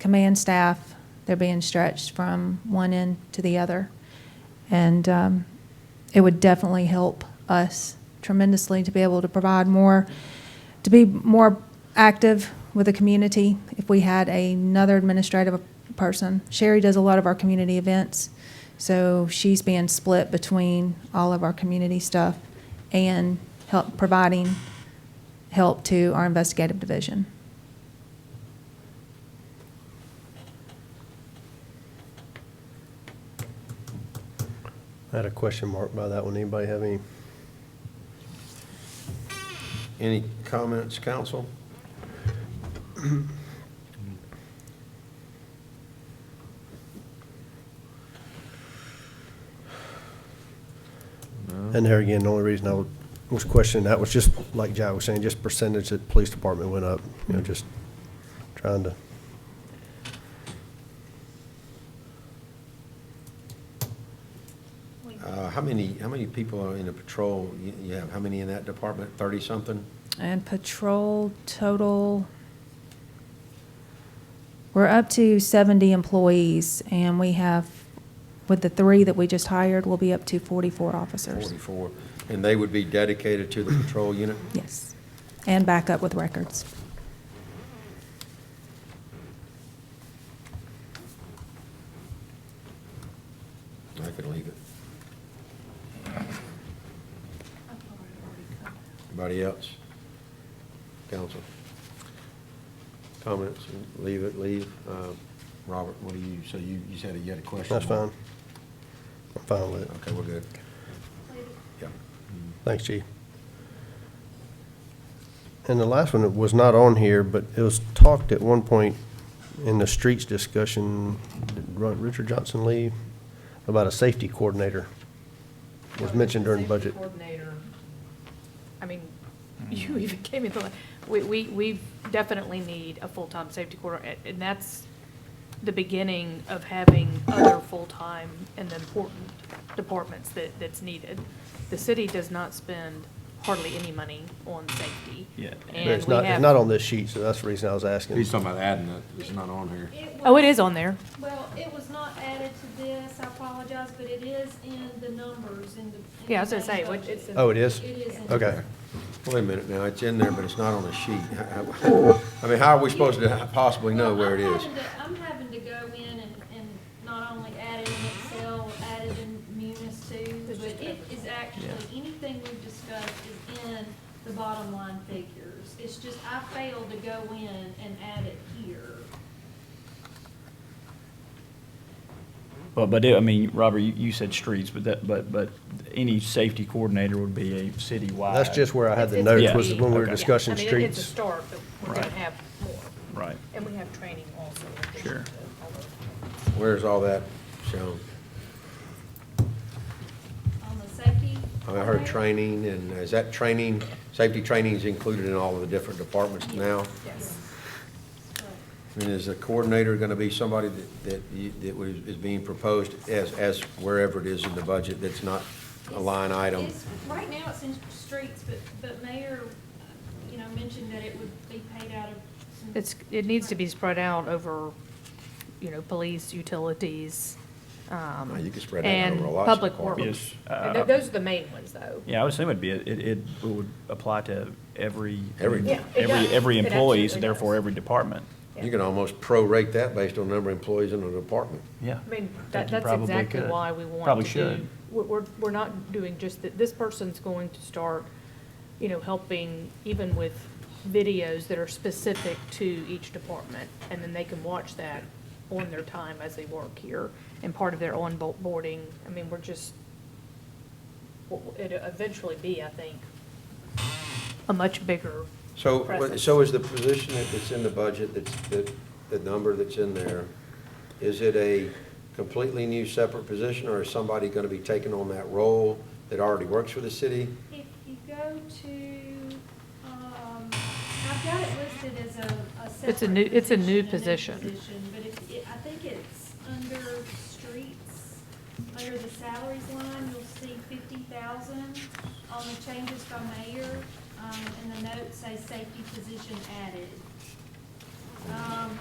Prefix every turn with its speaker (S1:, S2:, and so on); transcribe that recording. S1: command staff, they're being stretched from one end to the other. And um, it would definitely help us tremendously to be able to provide more, to be more active with the community if we had another administrative person. Sherry does a lot of our community events, so she's being split between all of our community stuff and help, providing help to our investigative division.
S2: I had a question mark by that one. Anybody have any?
S3: Any comments, council?
S2: And there again, the only reason I would- was questioning that was just, like Jai was saying, just percentage that police department went up, you know, just trying to.
S3: Uh, How many, how many people are in a patrol? You- You have, how many in that department? 30-something?
S1: And patrol total, we're up to 70 employees, and we have, with the three that we just hired, we'll be up to 44 officers.
S3: 44. And they would be dedicated to the patrol unit?
S1: Yes, and back up with records.
S3: I could leave it. Anybody else? Council? Comments? Leave it, leave. Uh, Robert, what do you, so you, you said you had a question?
S2: That's fine. I'm fine with it.
S3: Okay, we're good. Yeah.
S2: Thanks, Chief. And the last one, it was not on here, but it was talked at one point in the streets discussion, did Ru- Richard Johnson leave, about a safety coordinator. Was mentioned during
S4: Safety
S2: budget.
S4: Coordinator, I mean, you even gave me the, we, we, we definitely need a full-time safety coordinator, and that's the beginning of having other full-time and the important departments that, that's needed. The city does not spend hardly any money on safety.
S5: Yeah. But
S2: But
S4: and
S2: it's
S4: we
S2: not, it's
S4: have-
S2: not on this sheet, so that's the reason I was asking.
S3: He's talking about adding it. It's not on here.
S4: Oh, it is on there.
S6: Well, it was not added to this, I apologize, but it is in the numbers in the. in
S4: Yeah, I was gonna
S6: the main
S4: say, what,
S6: budget.
S4: it's. in-
S2: Oh, it is?
S6: It is in.
S2: Okay.
S3: Wait a minute now, it's in there, but it's not on the sheet. How- how- I mean, how are we supposed to possibly know
S6: Well,
S3: where it
S6: I'm
S3: is?
S6: having to- I'm having to go in and, and not only add it in Excel, add it in Munis too, but it is actually, anything we've discussed is in the bottom line figures. It's just I failed to go in and add it here.
S5: But, but, it- I mean, Robert, you, you said streets, but that, but, but any safety coordinator would be a citywide.
S2: That's just where I had the
S4: It's-
S2: notes,
S4: it's-
S2: was when we were
S5: Yeah.
S2: discussing
S4: Yeah, I mean, it- It's a
S2: streets.
S4: start, but we're gonna
S5: Right.
S4: have more.
S5: Right.
S4: And we have training also. in addition
S5: Sure.
S4: to all those.
S3: Where's all that shown?
S6: On the safety.
S3: I mean, I heard
S6: plan.
S3: training, and is that training, safety training's included in all of the different departments now?
S4: Yes.
S3: I mean, is a coordinator gonna be somebody that, that you- that was- is being proposed as, as wherever it is in the budget that's not a line item?
S6: It's- Right now, it's in streets, but, but Mayor, uh, you know, mentioned that it would be paid out of. some-
S4: It's, it needs to be spread out over, you know, police, utilities, um.
S3: Oh, you could spread that over
S4: and
S3: lots of
S4: public works.
S3: departments.
S5: Yes,
S4: And
S5: uh,
S4: tho- Those are the main ones, though.
S5: Yeah, I would assume it'd be, it, it would apply to every.
S3: Every- Yeah,
S4: it
S5: Every,
S4: does.
S5: every
S4: It
S5: employee, so
S4: absolutely
S5: therefore
S4: does.
S5: every department.
S3: You can almost prorate that based on the number of employees in a department.
S5: Yeah.
S4: I mean,
S5: think
S4: that,
S5: you
S4: that's
S5: probably
S4: exactly
S5: could.
S4: why we want
S5: Probably
S4: to do,
S5: should.
S4: we're, we're, we're not doing just that, this person's going to start, you know, helping even with videos that are specific to each department, and then they can watch that on their time as they work here, and part of their onboarding, I mean, we're just, it'll eventually be, I think, a much bigger
S3: So,
S4: presence.
S3: so is the position that- that's in the budget, that's, that, the number that's in there, is it a completely new separate position, or is somebody gonna be taking on that role that already works for the city?
S6: If you go to, um, I've got it listed as a, a separate.
S4: It's a new- it's a new position.
S6: But if, it- I think it's under streets, under the salaries line, you'll see fifty thousand on the changes by mayor, um, and the notes say safety position added. Um,